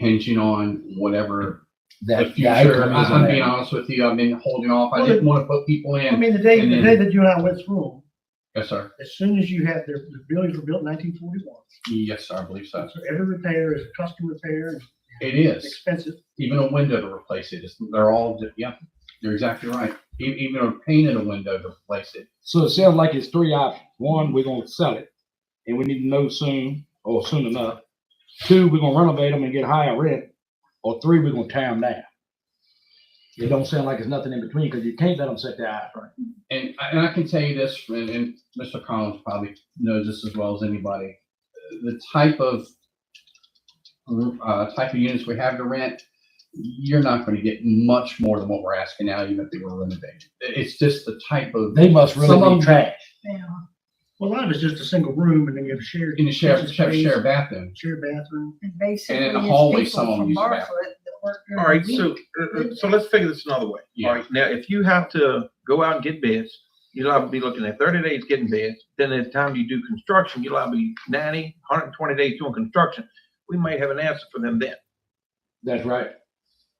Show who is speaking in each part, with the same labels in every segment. Speaker 1: hinging on whatever the
Speaker 2: That, yeah, I
Speaker 1: future. I-
Speaker 2: come
Speaker 1: I'm being
Speaker 2: in.
Speaker 1: honest with you, I've been holding off. I
Speaker 3: Well,
Speaker 1: didn't want to put people
Speaker 3: I
Speaker 1: in.
Speaker 3: mean, the day,
Speaker 1: and
Speaker 3: the
Speaker 1: then-
Speaker 3: day that you and I went through,
Speaker 1: Yes, sir.
Speaker 3: as soon as you had, the, the buildings were built in nineteen forty-one.
Speaker 1: Yes, sir, I believe so.
Speaker 3: So every repair is custom repair, and
Speaker 1: It is.
Speaker 3: expensive.
Speaker 1: Even a window to replace it. It's, they're all, di- yeah, you're exactly right. E- Even a pane in a window to replace it.
Speaker 4: So it sounds like it's three options. One, we're gonna sell it, and we need to know soon, or soon enough. Two, we're gonna renovate them and get higher rent, or three, we're gonna tear them down. It don't sound like it's nothing in between, because you can't let them set their eyes, right?
Speaker 1: And, I- and I can tell you this, and, and Mr. Collins probably knows this as well as anybody. The type of, uh, type of units we have to rent, you're not gonna get much more than what we're asking now, even if they were renovated. It's just the type of,
Speaker 4: They must
Speaker 1: Some of
Speaker 4: really
Speaker 1: 'em-
Speaker 4: be trash.
Speaker 3: Well, a lot of it's just a single room and then you have shared.
Speaker 1: in the share, share,
Speaker 3: space,
Speaker 1: share bathroom.
Speaker 3: Shared bathroom.
Speaker 5: And basically,
Speaker 1: And in
Speaker 5: it's
Speaker 1: the hallway,
Speaker 5: people
Speaker 1: someone
Speaker 5: from
Speaker 1: used the
Speaker 5: Bartlett that work during
Speaker 6: All right,
Speaker 5: the
Speaker 6: so,
Speaker 5: week.
Speaker 6: uh, uh, so let's figure this another way.
Speaker 1: Yeah.
Speaker 6: All right, now, if you have to go out and get bids, you'll have to be looking at thirty days getting bids. Then at the time you do construction, you'll have to be 90, 120 days doing construction. We might have an answer for them then.
Speaker 4: That's right.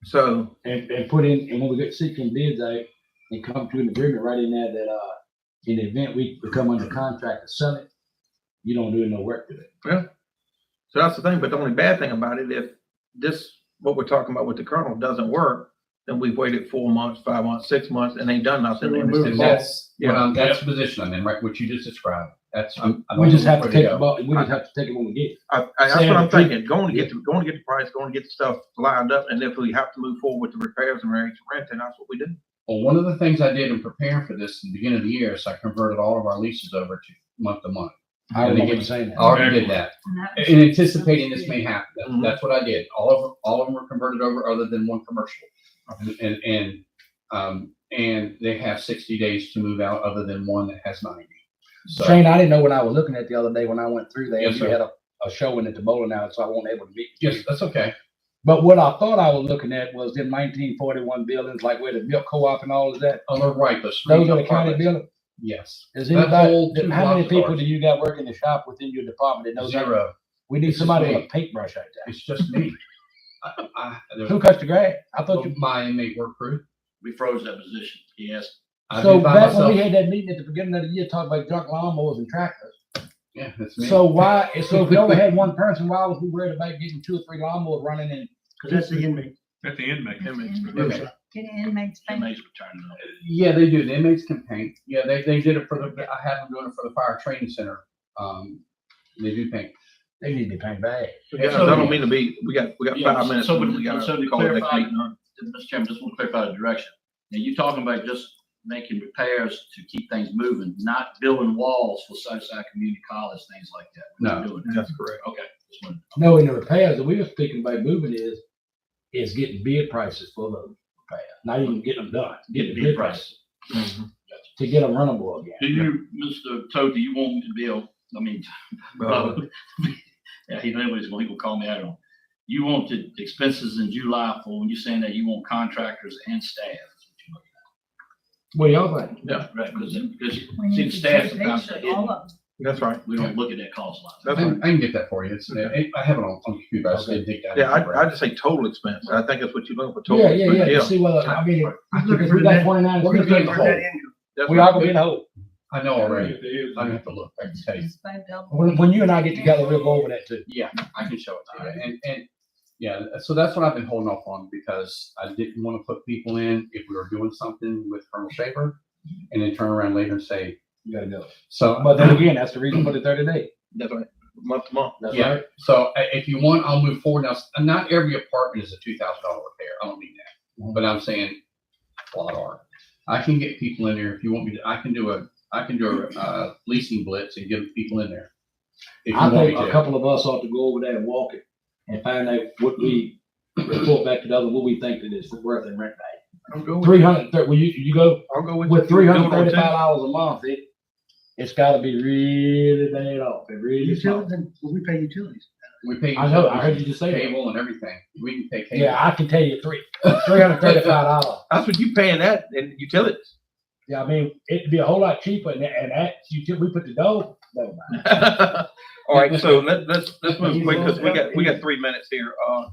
Speaker 6: So,
Speaker 4: And, and put in, and when we get sick and bids out, and come to an agreement right in there that, uh, in the event we become under contract to sell it, you don't do no work to it.
Speaker 6: so that's the thing, but the only bad thing about it, if this, what we're talking about with the colonel doesn't work, then we've waited four months, five months, six months, and ain't done nothing.
Speaker 3: So we're
Speaker 6: And it's
Speaker 3: moving
Speaker 1: And
Speaker 6: just-
Speaker 1: that's,
Speaker 6: Yeah.
Speaker 1: what I'm- that's the position I'm in, right, what you just described. That's, I'm. I'm
Speaker 4: Um, We just have to
Speaker 1: ready
Speaker 4: take the
Speaker 1: go.
Speaker 4: ball, we just have to take it when we get it.
Speaker 6: I, I, that's
Speaker 4: Sam,
Speaker 6: what I'm
Speaker 4: the truth-
Speaker 6: thinking, going to get, the going to get the price, going to get the stuff lined up, and if we have to move forward with the repairs and raise rent, then that's what we do.
Speaker 1: Well, one of the things I did in preparing for this, in the beginning of the year, is I converted all of our leases over to month to month.
Speaker 4: I
Speaker 1: And they
Speaker 4: remember
Speaker 1: get-
Speaker 4: saying that.
Speaker 1: I already did that.
Speaker 5: And that was-
Speaker 1: in anticipating this may happen. That-
Speaker 4: Mm-hmm.
Speaker 6: Mhm.
Speaker 1: That's what I did. All of, all of them were converted over other than one commercial. And- And, and, um, and they have sixty days to move out other than one that has ninety. So,
Speaker 4: Shane, I didn't know what I was looking at the other day when I went through there.
Speaker 1: Yes,
Speaker 4: You
Speaker 1: sir.
Speaker 4: had a, a showing at the bowling alley, so I wasn't able to meet. you.
Speaker 1: yes, that's okay.
Speaker 4: But what I thought I was looking at was them nineteen forty-one buildings, like where the milk co-op and all of that.
Speaker 1: On the right, those three
Speaker 4: Those are the county
Speaker 1: apartments.
Speaker 4: buildings.
Speaker 1: Yes,
Speaker 4: Is
Speaker 1: That whole two
Speaker 4: anybody, how many
Speaker 1: blocks is
Speaker 4: people
Speaker 1: ours.
Speaker 4: do you got working the shop within your department that knows that?
Speaker 1: zero.
Speaker 4: We need
Speaker 1: It's just
Speaker 4: somebody with
Speaker 1: me.
Speaker 4: a paintbrush right there.
Speaker 1: It's just me. I, I, there's
Speaker 4: Who cuts the grass? I thought you,
Speaker 1: my inmate work crew.
Speaker 7: we froze that position. Yes,
Speaker 1: I
Speaker 4: so
Speaker 1: do by
Speaker 4: back when we
Speaker 1: myself.
Speaker 4: had that meeting at the beginning of the year, talking about junk lawnmowers and tractors.
Speaker 1: Yeah, that's me.
Speaker 4: So why, so if we only had one person, why was we worried about getting two or three lawnmowers running and
Speaker 3: Cause that's the inmate.
Speaker 7: at the end, make
Speaker 5: That's inmate.
Speaker 1: Okay.
Speaker 5: Get an inmate's
Speaker 7: The
Speaker 5: bank.
Speaker 7: inmates were turning up.
Speaker 1: Yeah, they do. The inmates can paint. Yeah, they, they did it for the, I had them doing it for the fire training center. Um, they do paint.
Speaker 4: they need to be painted bad?
Speaker 6: Yeah, I don't mean to be, we got, we got
Speaker 7: Yeah,
Speaker 6: five minutes.
Speaker 7: so- so
Speaker 6: and
Speaker 7: to-
Speaker 6: we gotta
Speaker 7: so to
Speaker 6: call it a
Speaker 7: clarify-
Speaker 6: night, huh?
Speaker 7: Mr. Chairman, just want to clarify the direction. Now, you're talking about just making repairs to keep things moving, not building walls for Southside Community College, things like that. We're not doing that.
Speaker 6: That's correct.
Speaker 7: Okay. just wanted-
Speaker 4: No, in the repairs that we were speaking about moving is, is getting bid prices for the repair, not even getting them done, getting
Speaker 7: Bid
Speaker 4: bid
Speaker 7: price.
Speaker 4: prices to get them runnable again.
Speaker 7: Do you, Mr. Toad, do you want me to build, I mean,
Speaker 6: Uh,
Speaker 7: yeah, he knows what he's going, he will call me out on. You want the expenses in July for, when you're saying that you want contractors and staff.
Speaker 4: What do y'all think?
Speaker 7: Yeah. Right, because, because
Speaker 5: We need
Speaker 7: see, the
Speaker 5: to
Speaker 7: staff
Speaker 5: take
Speaker 7: sometimes,
Speaker 5: pictures,
Speaker 7: they
Speaker 5: all of them.
Speaker 6: That's right.
Speaker 7: we don't look at that cost line.
Speaker 1: I
Speaker 6: That's
Speaker 1: can,
Speaker 6: right.
Speaker 1: I can get that for you. It's, I- I have it on, on computer. I just
Speaker 4: Okay.
Speaker 1: didn't take that.
Speaker 6: Yeah, I, I just say total expense. I think that's what you're looking for. total
Speaker 4: Yeah, yeah, yeah,
Speaker 6: expense.
Speaker 4: to see whether, I mean,
Speaker 3: Looking
Speaker 4: because
Speaker 3: for
Speaker 4: we got
Speaker 3: that.
Speaker 4: twenty-nine.
Speaker 1: We're gonna
Speaker 4: we
Speaker 1: take
Speaker 4: got
Speaker 1: the
Speaker 3: for
Speaker 1: whole-
Speaker 4: a
Speaker 3: that income.
Speaker 6: That's
Speaker 4: We
Speaker 6: right.
Speaker 4: all gonna be in a hole.
Speaker 1: I know already. I don't have to look. I can tell you.
Speaker 4: When, when you and I get together, we'll go over that too.
Speaker 1: Yeah, I can show it to you. And, and, yeah, so that's what I've been holding off on because I didn't want to put people in if we were doing something with Colonel Shaver and then turn around later and say,
Speaker 4: You gotta go.
Speaker 1: so.
Speaker 4: But then again, that's the reason for the thirty day.
Speaker 6: That's right. Month to month.
Speaker 4: That's
Speaker 1: Yeah,
Speaker 4: right.
Speaker 1: so i- if you want, I'll move forward. Now, s- not every apartment is a two thousand dollar repair. I don't mean
Speaker 4: Mm-hmm.
Speaker 1: that, but I'm saying a lot are. I can get people in there if you want me to. I can do a, I can do a, uh, leasing blitz and get people in there. If you
Speaker 4: I
Speaker 1: want me
Speaker 4: think a
Speaker 1: to.
Speaker 4: couple of us ought to go over there and walk it and find out what we report back to the other, what we think it is worth in rent value.
Speaker 6: I'll go with,
Speaker 4: Three hundred, will you, you go
Speaker 6: I'll go with.
Speaker 4: with
Speaker 6: you.
Speaker 4: three
Speaker 6: Doing
Speaker 4: hundred
Speaker 6: what it
Speaker 4: thirty-five
Speaker 6: takes.
Speaker 4: dollars a month, it, it's gotta be really bad off, it really is.
Speaker 3: Utilities, then we pay utilities.
Speaker 1: We pay.
Speaker 4: I know, I heard you just say that.
Speaker 1: Cable and everything. We can pay cable.
Speaker 4: Yeah, I can tell you three, three hundred thirty-five dollars.
Speaker 6: That's what you paying that and utilities.
Speaker 4: Yeah, I mean, it'd be a whole lot cheaper and, and that, you, we put the dog, never mind.
Speaker 6: All right, so let, let's, let's move quick, because we got, we got three minutes here. Uh,